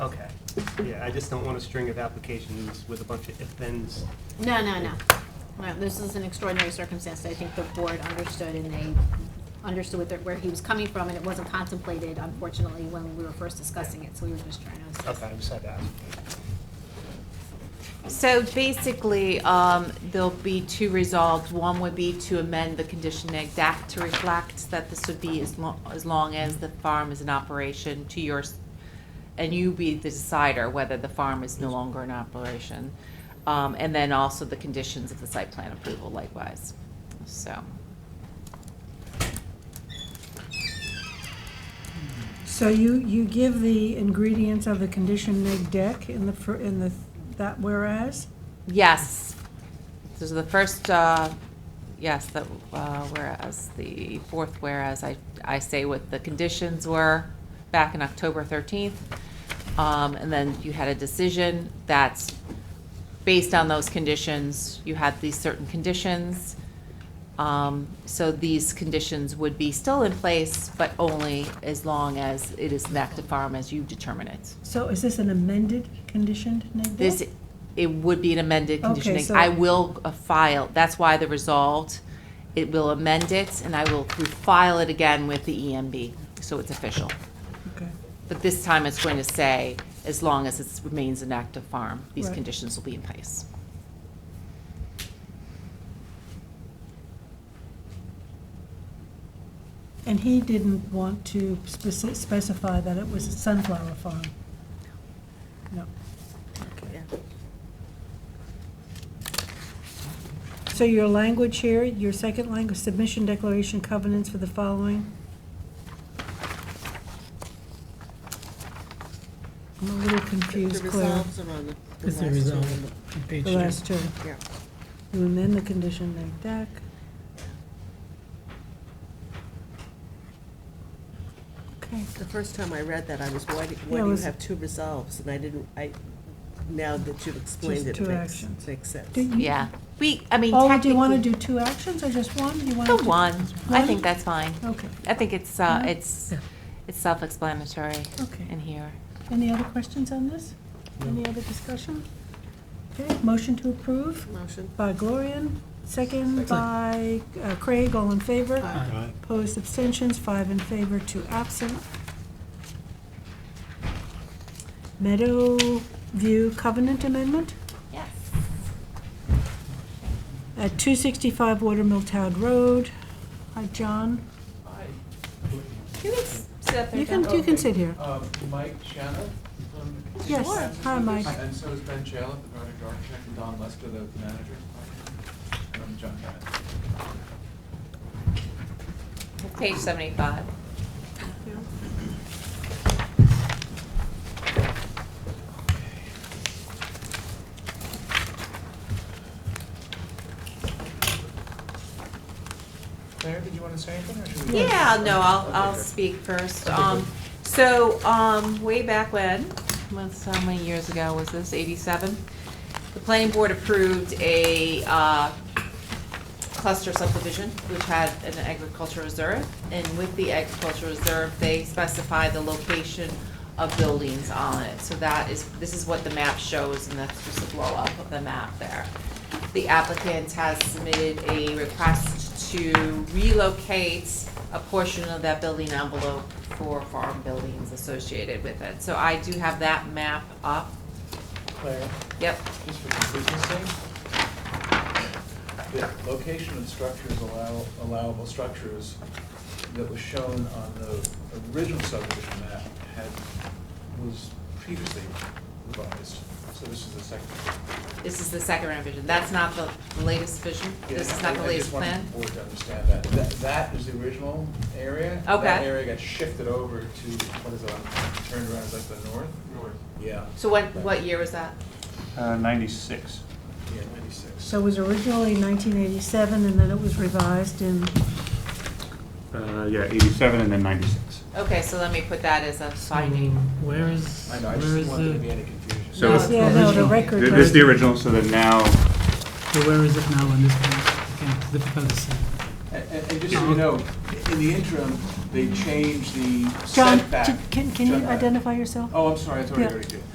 Okay, yeah, I just don't want a string of applications with a bunch of if-thens. No, no, no. No, this is an extraordinary circumstance. I think the board understood and they understood what their- where he was coming from, and it wasn't contemplated, unfortunately, when we were first discussing it, so we were just trying to. Okay, I just had to ask. So basically, um, there'll be two resolves. One would be to amend the condition exact to reflect that this would be as long, as long as the farm is in operation to yours, and you be the decider whether the farm is no longer in operation. Um, and then also the conditions of the site plan approval likewise, so. So you, you give the ingredients of the condition neg deck in the, fir- in the, that whereas? Yes. This is the first, uh, yes, that, uh, whereas, the fourth whereas, I, I say what the conditions were back in October 13th. Um, And then you had a decision that's based on those conditions, you had these certain conditions. Um, So these conditions would be still in place, but only as long as it is an active farm as you determine it. So is this an amended conditioned neg deck? This, it would be an amended condition. Okay, so- I will uh, file, that's why the resolved, it will amend it, and I will file it again with the EMB, so it's official. Okay. But this time, it's going to say, as long as it remains an active farm, these Right. conditions will be in place. And he didn't want to speci- specify that it was a sunflower farm? No. So your language here, your second language, submission declaration covenants for the following? I'm a little confused, Claire, Is the result on page the two? last two. Yeah. And then the condition neg deck. Okay. The first time I read that, I was, why do, Yeah, it why do you was- have two resolves? And I didn't, I, now that you've explained Just it, two makes, actions. makes sense. Do you- Yeah. We, I mean, Oh, Mm-hmm. do you want to technically- do two actions or just one? Do you want The to? one, I One? think that's fine. Okay. I think it's, uh, Mhm. it's, it's self-explanatory Okay. in here. Any other questions on this? Any other discussion? Okay, motion to approve Motion? by Gloria, second by uh, Craig, all in favor? Aye. Opposed, abstentions, five in favor, two absent. Meadow View Covenant Amendment Yes. at 265 Watermill Town Road. Hi, John. You can s- sit up there, You can, John. you can sit here. Uh, Mike Shannon. um, Yes. Sure. Hi, Mike. And so is Ben Chalip, the project architect, and Don Lester, the manager. And I'm John Bennett. Page 75. Claire, did you want to say anything, or should we? Yeah, no, I'll, I'll Okay, good. speak first. Okay, Um, so, um, way back when, months, how many years ago was this, eighty-seven? The planning board approved a, uh, cluster subdivision, which had an agricultural reserve. And with the agricultural reserve, they specified the location of buildings on it. So that is, this is what the map shows, and that's just a blow up of the map there. The applicant has submitted a request to relocate a portion of that building envelope for farm buildings associated with it. So I do have that map up. Claire, Yep, just for completeness sake. The location of structures allow, allowable structures that was shown on the original subdivision map had, was previously revised. So this is the second. this is the second revision. That's not the the latest vision? This is Yeah, I- not the I latest just wanted plan? the board to understand that. That, that is the original area. That Okay. area got shifted over to, what is it, on- turned around, is that the north? North. Yeah, So what, what year was that? Uh, 96. yeah, ninety-six. So it was originally 1987, and then it was revised in Uh, yeah, 87 and then 96. Okay, so let me put that as a finding. Um, Where is, I know, where I just is didn't want there to be the, any confusion. So No, it's- Yeah, no, the Original. record. Th- This is the does- original, so then now, so where is it now on this page? I can't, difficult to see. And, and and just so you know, in the interim, they changed the John, setback. can, can you John, uh, identify yourself? Oh, I'm sorry, I thought I Yeah. already did.